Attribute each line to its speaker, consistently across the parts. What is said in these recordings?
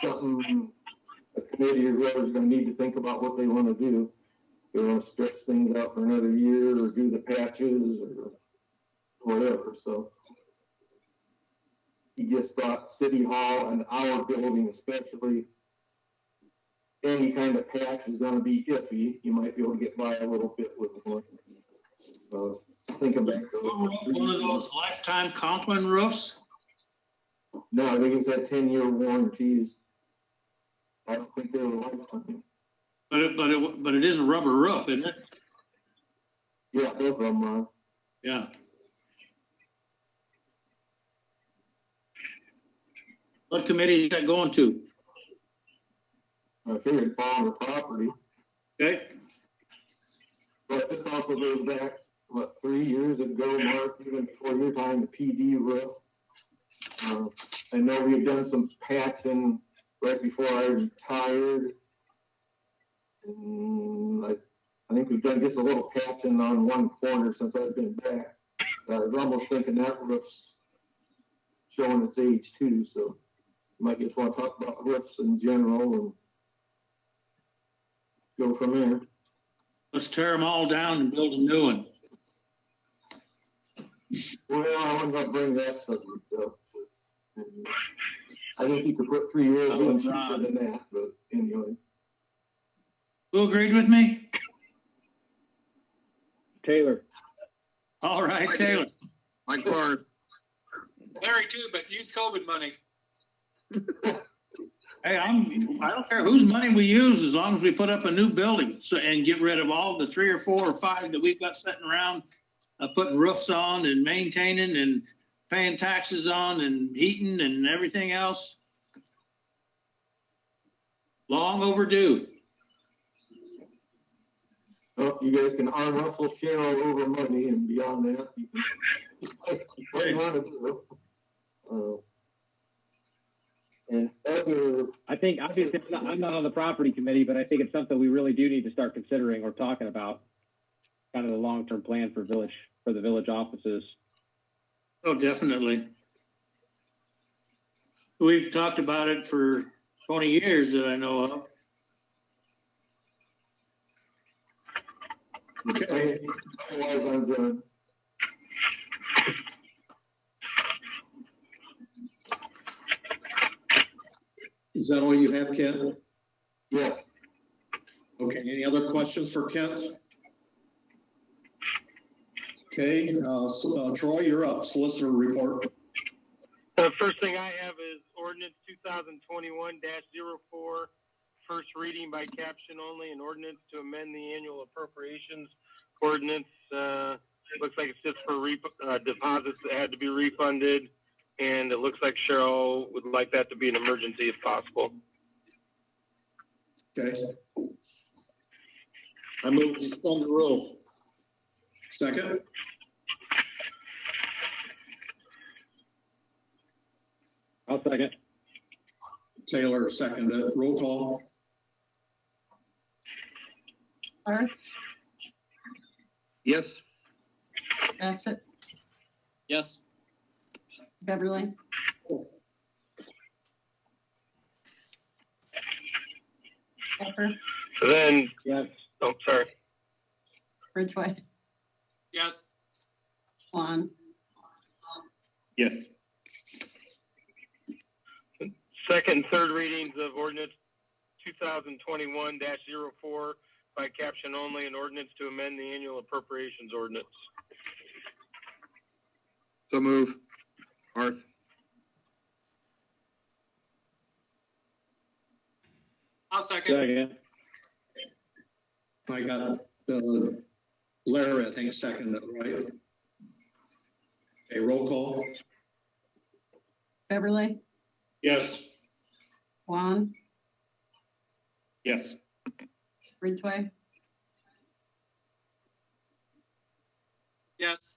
Speaker 1: something a committee or whoever's gonna need to think about what they wanna do. They wanna stretch things out for another year or do the patches or whatever, so. You just thought City Hall and our building especially, any kind of patch is gonna be iffy. You might be able to get by a little bit with one. So thinking back. to-
Speaker 2: One of those lifetime Conklin roofs?
Speaker 1: No, I think it's that ten year warranties. I don't think they were lifetime.
Speaker 2: But it, but it, but it is a rubber roof, isn't it?
Speaker 1: Yeah, both of them are.
Speaker 2: Yeah. What committee is that going to?
Speaker 1: I figured farm or property,
Speaker 2: Okay,
Speaker 1: but this also goes back, what, three years ago, Mark, even before your time, the PD roof. Uh, I know we've done some patching right before I retired. And I, I think we've done just a little patching on one corner since I've been back. I was almost thinking that roof's showing its age too, so might just wanna talk about roofs in general and go from there.
Speaker 2: let's tear them all down and build a new one.
Speaker 1: Well, I wasn't gonna bring that subject up. I think you could put three years in cheaper than that, but anyway.
Speaker 2: Who agreed with me?
Speaker 3: Taylor.
Speaker 2: All right, Taylor.
Speaker 4: Mike Barth,
Speaker 5: Larry too, but use COVID money.
Speaker 2: Hey, I'm, I don't care whose money we use, as long as we put up a new building, so, and get rid of all the three or four or five that we've got sitting around, uh, putting roofs on and maintaining and paying taxes on and heating and everything else. Long overdue.
Speaker 1: Well, you guys can arm wrestle Cheryl over money and beyond that. you can- What do you wanna do? Uh, And other,
Speaker 3: I think, obviously, I'm not- I'm not on the property committee, but I think it's something we really do need to start considering or talking about. Kind of the long-term plan for village, for the village offices.
Speaker 2: Oh, definitely. We've talked about it for twenty years that I know of.
Speaker 1: okay, otherwise I'm done.
Speaker 6: Is that all you have, Kent?
Speaker 1: Yes,
Speaker 6: Okay, any other questions for Kent? Okay, uh, s- uh, Troy, you're up, solicitor report.
Speaker 7: The first thing I have is ordinance two thousand twenty-one 4 first reading by caption only, an ordinance to amend the annual appropriations ordinance. Uh, looks like it's just for re- uh, deposits that had to be refunded. And it looks like Cheryl would like that to be an emergency if possible.
Speaker 6: Okay,
Speaker 2: I move to suspend the rules.
Speaker 6: second?
Speaker 3: I'll second.
Speaker 6: Taylor, second. Uh, Roll call?
Speaker 8: Barth,
Speaker 4: yes,
Speaker 8: Bassett,
Speaker 5: Yes.
Speaker 8: Beverly. Pepper,
Speaker 7: Then,
Speaker 3: Yes.
Speaker 7: oh, sorry.
Speaker 8: Ridgway,
Speaker 5: Yes.
Speaker 8: Swan,
Speaker 4: yes,
Speaker 7: Second and third readings of ordinance two thousand twenty-one 4 by caption only, an ordinance to amend the annual appropriations ordinance.
Speaker 4: so move. Barth,
Speaker 5: I'll second.
Speaker 3: Second.
Speaker 6: I got uh, Larry, I think, second, right? Okay, roll call?
Speaker 8: Beverly,
Speaker 2: Yes.
Speaker 8: Juan,
Speaker 4: yes,
Speaker 8: Ridgway,
Speaker 5: Yes.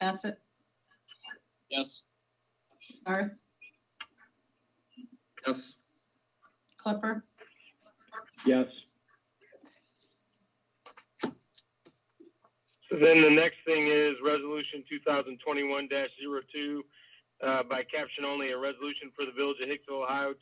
Speaker 8: Bassett,
Speaker 5: Yes.
Speaker 8: Barth,
Speaker 4: yes,
Speaker 8: Klepper,
Speaker 3: Yes.
Speaker 7: Then the next thing is resolution two thousand twenty-one 2 uh, by caption only, a resolution for the village of Hicksville, Ohio to